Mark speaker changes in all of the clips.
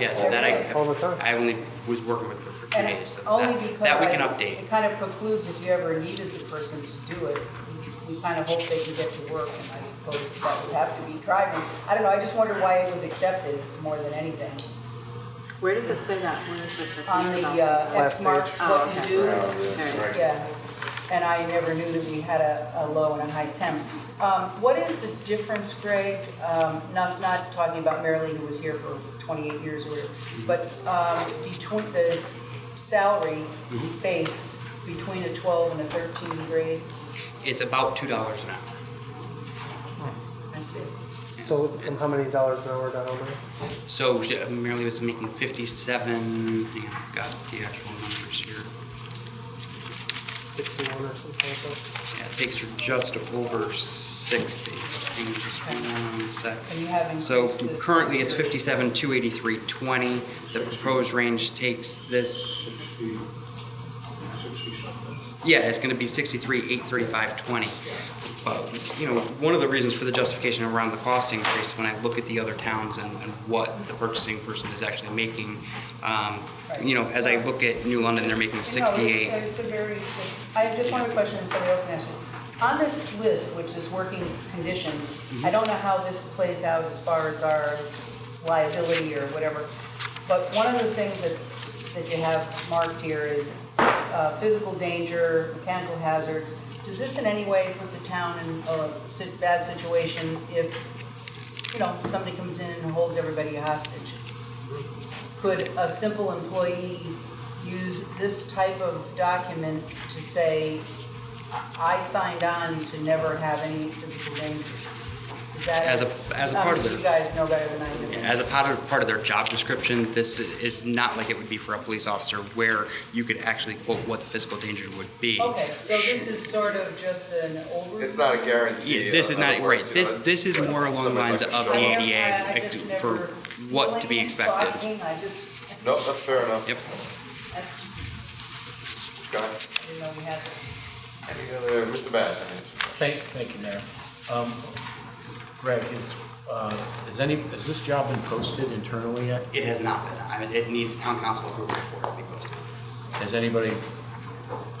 Speaker 1: Yeah, so that I,
Speaker 2: All the time.
Speaker 1: have- I only was working with her for two
Speaker 3: And
Speaker 1: days, so
Speaker 3: Only
Speaker 1: that,
Speaker 3: because.
Speaker 1: that we can
Speaker 3: I-
Speaker 1: update.
Speaker 3: It kind of precludes if you ever needed the person to do it, we we kind of hope they can get to work, and I suppose that would have to be driving. I don't know, I just wonder why it was accepted more than anything.
Speaker 4: Where does it say that? Where is this?
Speaker 3: On the, uh,
Speaker 2: Last
Speaker 3: X
Speaker 2: page.
Speaker 3: marks
Speaker 4: Oh,
Speaker 3: what you
Speaker 4: okay.
Speaker 3: do.
Speaker 4: Alright.
Speaker 3: Yeah, and I never knew that we had a, a low and a high temp. Um, what is the difference, Greg, um, not, not talking about Marilee, who was here for twenty-eight years or whatever, but, um, between the salary base between a twelve and a thirteen grade?
Speaker 1: It's about two dollars an hour.
Speaker 3: I see.
Speaker 2: So from how many dollars an hour to how many?
Speaker 1: So she, Mary Lee was making fifty-seven, hang on, I've got the actual numbers here.
Speaker 2: Sixty-one or something like that?
Speaker 1: Yeah, it takes her just over sixty. Hang on just one sec.
Speaker 3: And you uh, have increased
Speaker 1: So
Speaker 3: the-
Speaker 1: currently it's fifty-seven, two eighty-three, twenty. The proposed range takes this, yeah, it's gonna be sixty-three, eight thirty-five, twenty. But, you know, one of the reasons for the justification around the cost increase, when I look at the other towns and, and what the purchasing person is actually making, um, you know, as I look at New London, they're making
Speaker 3: No,
Speaker 1: sixty-eight.
Speaker 3: it's- it's a very, I have just one other question, and somebody else can ask you. On this list, which is working conditions, I don't know how this plays out as far as our liability or whatever, but one of the things that's, that you have marked here is uh, physical danger, mechanical hazards. Does this in any way put the town in a si- bad situation if, you know, somebody comes in and holds everybody hostage? Could a simple employee use this type of document to say, I signed on to never have any physical danger? Is that?
Speaker 1: As a- as a part of
Speaker 3: Obviously,
Speaker 1: it.
Speaker 3: You guys know better than I do.
Speaker 1: As a part of, part of their job description, this is not like it would be for a police officer where you could actually quote what the physical danger would be.
Speaker 3: Okay, so this is sort of just an overview?
Speaker 5: It's not a guarantee.
Speaker 1: Yeah, this is
Speaker 5: of
Speaker 1: not,
Speaker 5: what
Speaker 1: right,
Speaker 5: it's
Speaker 1: this,
Speaker 5: gonna-
Speaker 1: this is more along the lines
Speaker 5: Somebody's
Speaker 1: of
Speaker 5: like
Speaker 1: the
Speaker 5: a
Speaker 3: I
Speaker 5: shark.
Speaker 3: don't-
Speaker 1: ADA
Speaker 3: I- I just
Speaker 1: like, for
Speaker 3: never
Speaker 1: what to be
Speaker 3: feel like it's
Speaker 1: expected.
Speaker 3: talking, I just,
Speaker 5: No, that's fair enough.
Speaker 1: Yep,
Speaker 3: that's,
Speaker 5: Go ahead.
Speaker 3: I didn't know we had this.
Speaker 5: Any other, Mr. Bass, I mean,
Speaker 6: Thank, thank you, Mayor. Um, Greg, is, uh, is any, has this job been posted internally yet?
Speaker 1: it has not been, I mean, it needs town council approval before it be posted.
Speaker 6: Has anybody,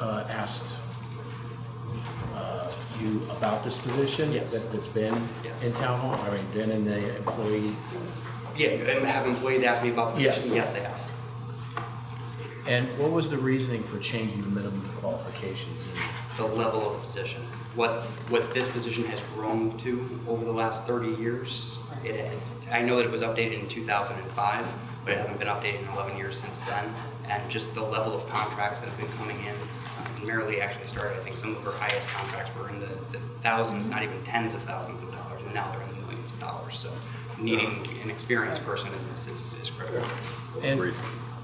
Speaker 6: uh, asked, uh, you about this position?
Speaker 1: Yes.
Speaker 6: that- That's been
Speaker 1: Yes.
Speaker 6: in town hall, I mean, been in the employee,
Speaker 1: Yeah, and have employees ask me about the
Speaker 6: Yes.
Speaker 1: position, yes, they have.
Speaker 6: and what was the reasoning for changing the minimum qualifications?
Speaker 1: The level of position, what, what this position has grown to over the last thirty years. It, I know that it was updated in two thousand and five, but it hasn't been updated in eleven years since then. And just the level of contracts that have been coming in, uh, Marilee actually started, I think some of her highest contracts were in the the thousands, not even tens of thousands of dollars, and now they're in the millions of dollars. So needing an experienced person in this is, is critical.
Speaker 6: And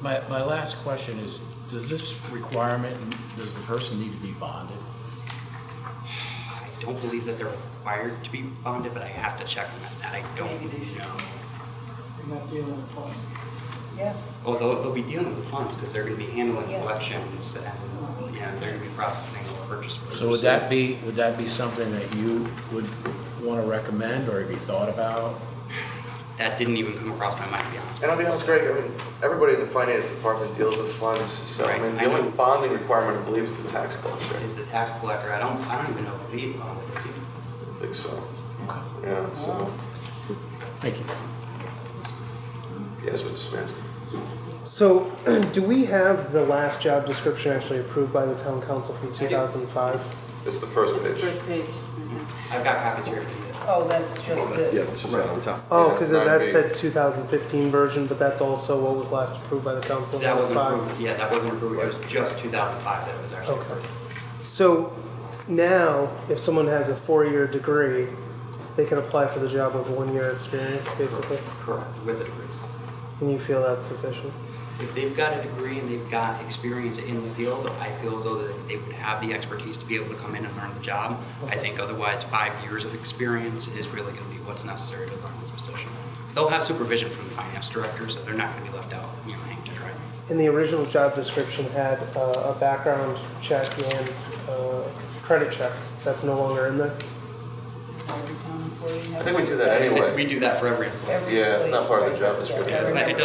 Speaker 6: my, my last question is, does this requirement, does the person need to be bonded?
Speaker 1: I don't believe that they're required to be bonded, but I have to check on that, that I don't know.
Speaker 3: Yeah,
Speaker 1: Oh, they'll, they'll be dealing with funds because they're going to be handling
Speaker 3: Yes.
Speaker 1: collections and, yeah, they're going to be processing all purchase orders.
Speaker 6: So would that be, would that be something that you would want to recommend or have you thought about?
Speaker 1: That didn't even come across my mind, to be honest.
Speaker 5: And I'll be
Speaker 1: with you.
Speaker 5: honest, Greg, I mean, everybody in the finance department deals with funds, so I
Speaker 1: Right,
Speaker 5: mean,
Speaker 1: I
Speaker 5: the only
Speaker 1: know.
Speaker 5: bonding requirement, I believe, is the tax collector.
Speaker 1: Is the tax collector, I don't, I don't even know if he's on it, is he?
Speaker 5: I think so. Yeah, so,
Speaker 6: Thank you.
Speaker 5: yes, Mr. Smansky.
Speaker 2: So do we have the last job description actually approved by the town council from two thousand and five?
Speaker 5: It's the first
Speaker 4: It's
Speaker 5: page.
Speaker 4: first page. mhm.
Speaker 1: I've got copies here if you need it.
Speaker 3: oh, that's just this.
Speaker 5: is on top.
Speaker 2: Oh, because that said two thousand fifteen version, but that's also what was last approved by the council in
Speaker 1: That wasn't
Speaker 2: 2005.
Speaker 1: approved, yeah, that wasn't approved, it was just 2005 that it was actually
Speaker 2: Okay.
Speaker 1: approved.
Speaker 2: So now, if someone has a four-year degree, they can apply for the job of one-year experience, basically.
Speaker 1: Correct, with a degree.
Speaker 2: And you feel that's sufficient?
Speaker 1: If they've got a degree and they've got experience in the field, I feel as though that they would have the expertise to be able to come in and learn the job. I think otherwise, five years of experience is really going to be what's necessary to learn this position. They'll have supervision from the finance director, so they're not going to be left out, you know, hanging to dry.
Speaker 2: And the original job description had uh, a background check and uh, credit check. That's no longer in there.
Speaker 3: Every town employee has-
Speaker 5: I think we do that anyway.
Speaker 1: We do that for every employee.
Speaker 3: Every
Speaker 5: Yeah, it's not part of the
Speaker 3: employee, right,
Speaker 5: job
Speaker 3: yes,
Speaker 5: description.
Speaker 1: It's
Speaker 3: every
Speaker 1: not- it